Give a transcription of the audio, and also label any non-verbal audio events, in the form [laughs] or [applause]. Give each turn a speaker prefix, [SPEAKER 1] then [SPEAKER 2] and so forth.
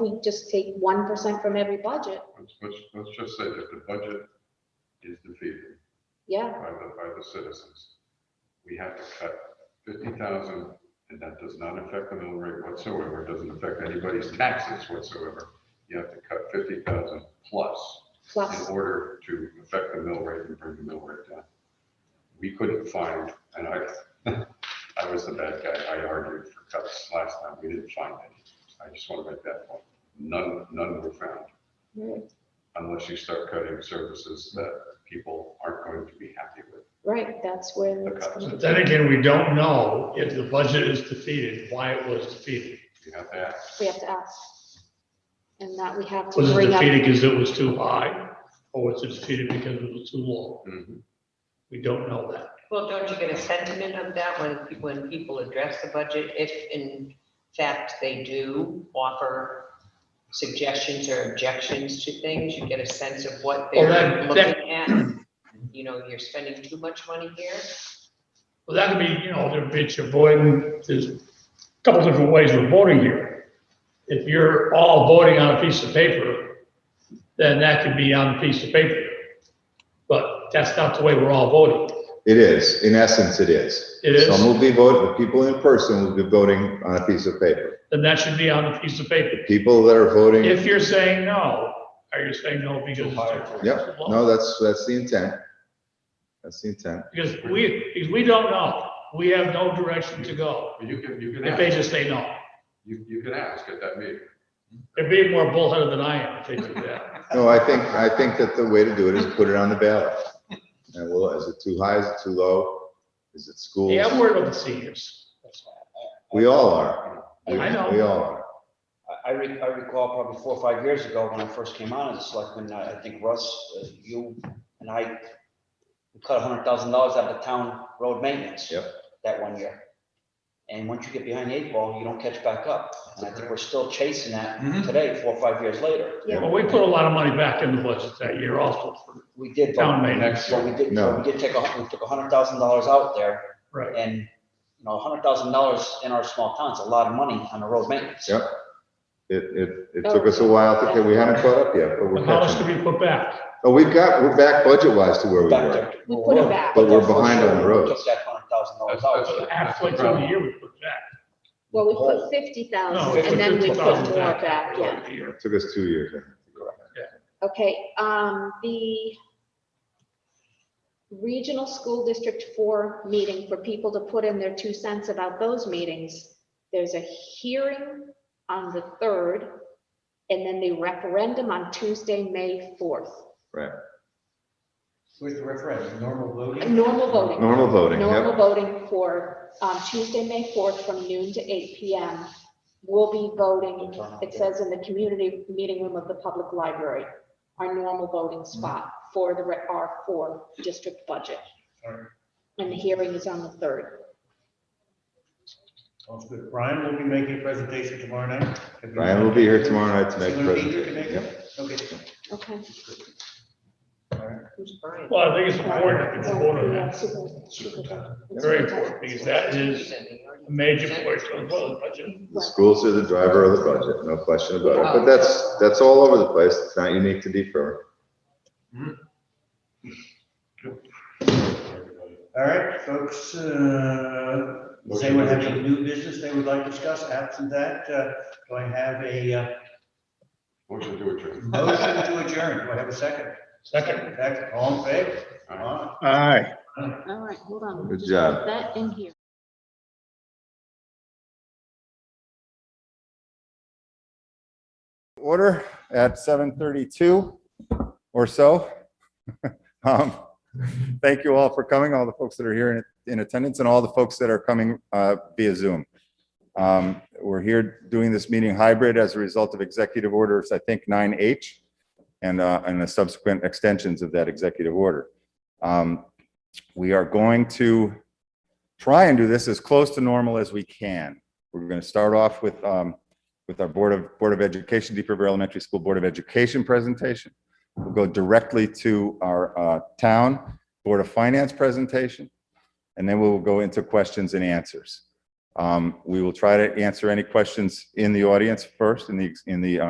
[SPEAKER 1] we just take one percent from every budget,
[SPEAKER 2] Let's, let's, let's just say that the budget is defeated
[SPEAKER 1] yeah,
[SPEAKER 2] by the, by the citizens. We have to cut fifty thousand, and that does not affect the mill rate whatsoever, It doesn't affect anybody's taxes whatsoever. You have to cut fifty thousand plus in
[SPEAKER 1] plus,
[SPEAKER 2] order to affect the mill rate and bring the mill rate down. We couldn't find, and I, [laughs] I was the bad guy, I argued for cuts last time, we didn't find any. I just want to make that point, none, none were found
[SPEAKER 1] right,
[SPEAKER 2] unless you start cutting services that people aren't going to be happy with.
[SPEAKER 1] right, that's where. it's
[SPEAKER 2] Okay.
[SPEAKER 1] gonna-
[SPEAKER 3] But then again, we don't know if the budget is defeated, why it was defeated.
[SPEAKER 2] You have to ask.
[SPEAKER 1] We have to ask. And that we have to
[SPEAKER 3] Was it
[SPEAKER 1] bring up.
[SPEAKER 3] defeated because it was too high, or was it defeated because it was too low?
[SPEAKER 2] Mhm.
[SPEAKER 3] We don't know that.
[SPEAKER 4] Well, don't you get a sentiment of that when, when people address the budget? If in fact they do offer suggestions or objections to things, you get a sense of what
[SPEAKER 3] Well, that-
[SPEAKER 4] they're looking at. You know, you're spending too much money here.
[SPEAKER 3] Well, that could be, you know, there- it's avoiding, there's a couple different ways of voting here. If you're all voting on a piece of paper, then that could be on a piece of paper. But that's not the way we're all voting.
[SPEAKER 5] It is, in essence, it is.
[SPEAKER 3] It is.
[SPEAKER 5] Some will be voting, the people in person will be voting on a piece of paper.
[SPEAKER 3] Then that should be on a piece of paper.
[SPEAKER 5] People that are voting,
[SPEAKER 3] If you're saying no, are you saying no because it's too
[SPEAKER 5] Yep.
[SPEAKER 3] too low?
[SPEAKER 5] no, that's, that's the intent. That's the intent.
[SPEAKER 3] Because we, because we don't know. We have no direction to go.
[SPEAKER 2] But You can, you can
[SPEAKER 3] If they
[SPEAKER 2] ask,
[SPEAKER 3] just say no.
[SPEAKER 2] you, you can ask at that meeting.
[SPEAKER 3] They're being more bullheaded than I am if they do that.
[SPEAKER 5] No, I think, I think that the way to do it is put it on the ballot. And well, is it too high, is it too low? Is it schools?
[SPEAKER 3] Yeah, I'm worried about the seniors.
[SPEAKER 5] We all are. We
[SPEAKER 3] I know.
[SPEAKER 5] we all are.
[SPEAKER 6] I- I, re- I recall probably four or five years ago when I first came on as a selectman, I I think Russ, uh, you and I we cut a hundred thousand dollars out of town road maintenance.
[SPEAKER 5] Yep.
[SPEAKER 6] That one year. And once you get behind the eight ball, you don't catch back up. And I think we're still chasing that
[SPEAKER 3] Mm-hmm.
[SPEAKER 6] today, four or five years later.
[SPEAKER 1] Yeah.
[SPEAKER 3] Well, we put a lot of money back in the budget that year also for
[SPEAKER 6] We did. but-
[SPEAKER 3] town maintenance.
[SPEAKER 2] Next
[SPEAKER 6] So we
[SPEAKER 2] year,
[SPEAKER 6] did,
[SPEAKER 5] No.
[SPEAKER 6] so we did take off, we took a hundred thousand dollars out there
[SPEAKER 3] Right.
[SPEAKER 6] and, you know, a hundred thousand dollars in our small town is a lot of money on the road maintenance.
[SPEAKER 5] Yep. It, it, it took us a while to get, we haven't caught up yet, but we're
[SPEAKER 3] But How much
[SPEAKER 5] catching.
[SPEAKER 3] could
[SPEAKER 5] up.
[SPEAKER 3] we put back?
[SPEAKER 5] Oh, we've got, we're back budget-wise to where we
[SPEAKER 6] Back
[SPEAKER 5] were.
[SPEAKER 6] there.
[SPEAKER 1] We put it back.
[SPEAKER 5] But we're
[SPEAKER 6] for
[SPEAKER 5] behind on
[SPEAKER 6] sure,
[SPEAKER 5] the
[SPEAKER 6] we
[SPEAKER 5] roads.
[SPEAKER 6] Took that hundred thousand
[SPEAKER 2] That's-
[SPEAKER 6] dollars
[SPEAKER 2] that's-
[SPEAKER 6] out.
[SPEAKER 3] Halfway
[SPEAKER 2] that's
[SPEAKER 3] through the
[SPEAKER 2] the
[SPEAKER 3] year we put back.
[SPEAKER 1] Well, we put fifty
[SPEAKER 3] No,
[SPEAKER 1] thousand
[SPEAKER 3] we
[SPEAKER 1] Um, and then we put
[SPEAKER 3] $50,000
[SPEAKER 1] more back, yeah.
[SPEAKER 3] every year.
[SPEAKER 5] It Took us two years.
[SPEAKER 1] Okay, um, the regional school district four meeting for people to put in their two cents about those meetings. There's a hearing on the third and then the referendum on Tuesday, May fourth.
[SPEAKER 7] With the referendum, normal voting?
[SPEAKER 1] Normal voting.
[SPEAKER 5] Normal voting,
[SPEAKER 1] Normal
[SPEAKER 5] yep.
[SPEAKER 1] voting for um, Tuesday, May 4th, from noon to eight PM. We'll be voting, it says in the community meeting room of the public library, our normal voting
[SPEAKER 3] Mm-hmm.
[SPEAKER 1] spot for the re- our four district budget.
[SPEAKER 7] Alright.
[SPEAKER 1] And the hearing is on the 3rd.
[SPEAKER 7] Sounds good. Brian will be making a presentation tomorrow night.
[SPEAKER 5] Brian will be here tomorrow night to make
[SPEAKER 7] Is
[SPEAKER 5] a
[SPEAKER 7] he gonna be here to make
[SPEAKER 5] presentation.
[SPEAKER 7] it?
[SPEAKER 5] Yep.
[SPEAKER 7] Okay.
[SPEAKER 1] Okay.
[SPEAKER 4] Who's Brian?
[SPEAKER 3] Well, I think it's important that people vote on that.
[SPEAKER 1] Superintendent.
[SPEAKER 3] Very important because that is
[SPEAKER 4] He's in the yard.
[SPEAKER 3] a major portion of the budget.
[SPEAKER 5] The schools are the driver of the budget, no question about it. But
[SPEAKER 4] Wow.
[SPEAKER 5] that's, that's all over the place. It's not unique to Deep River.
[SPEAKER 7] All right, folks, uh, does anyone have any new business they would like to discuss? Absent that, uh, do I have a uh,
[SPEAKER 2] Motion to adjourn.
[SPEAKER 7] motion to adjourn? Do I have a second?
[SPEAKER 3] Second.
[SPEAKER 7] Second, all in favor?
[SPEAKER 2] Aye.
[SPEAKER 7] Aye.
[SPEAKER 8] Aye.
[SPEAKER 1] All right, hold on.
[SPEAKER 5] Good job.
[SPEAKER 1] Put That in here.
[SPEAKER 8] Order at 7:32 or so. [laughs] Um, Thank you all for coming, all the folks that are here in- in attendance and all the folks that are coming uh, via Zoom. Um, We're here doing this meeting hybrid as a result of Executive Orders, I think 9H, and uh, and the subsequent extensions of that executive order. Um, We are going to try and do this as close to normal as we can. We're going to start off with um, with our Board of, Board of Education, Deep River Elementary School Board of Education presentation. We'll go directly to our uh, town Board of Finance presentation, and then we will go into questions and answers. Um, We will try to answer any questions in the audience first, in the, in the uh,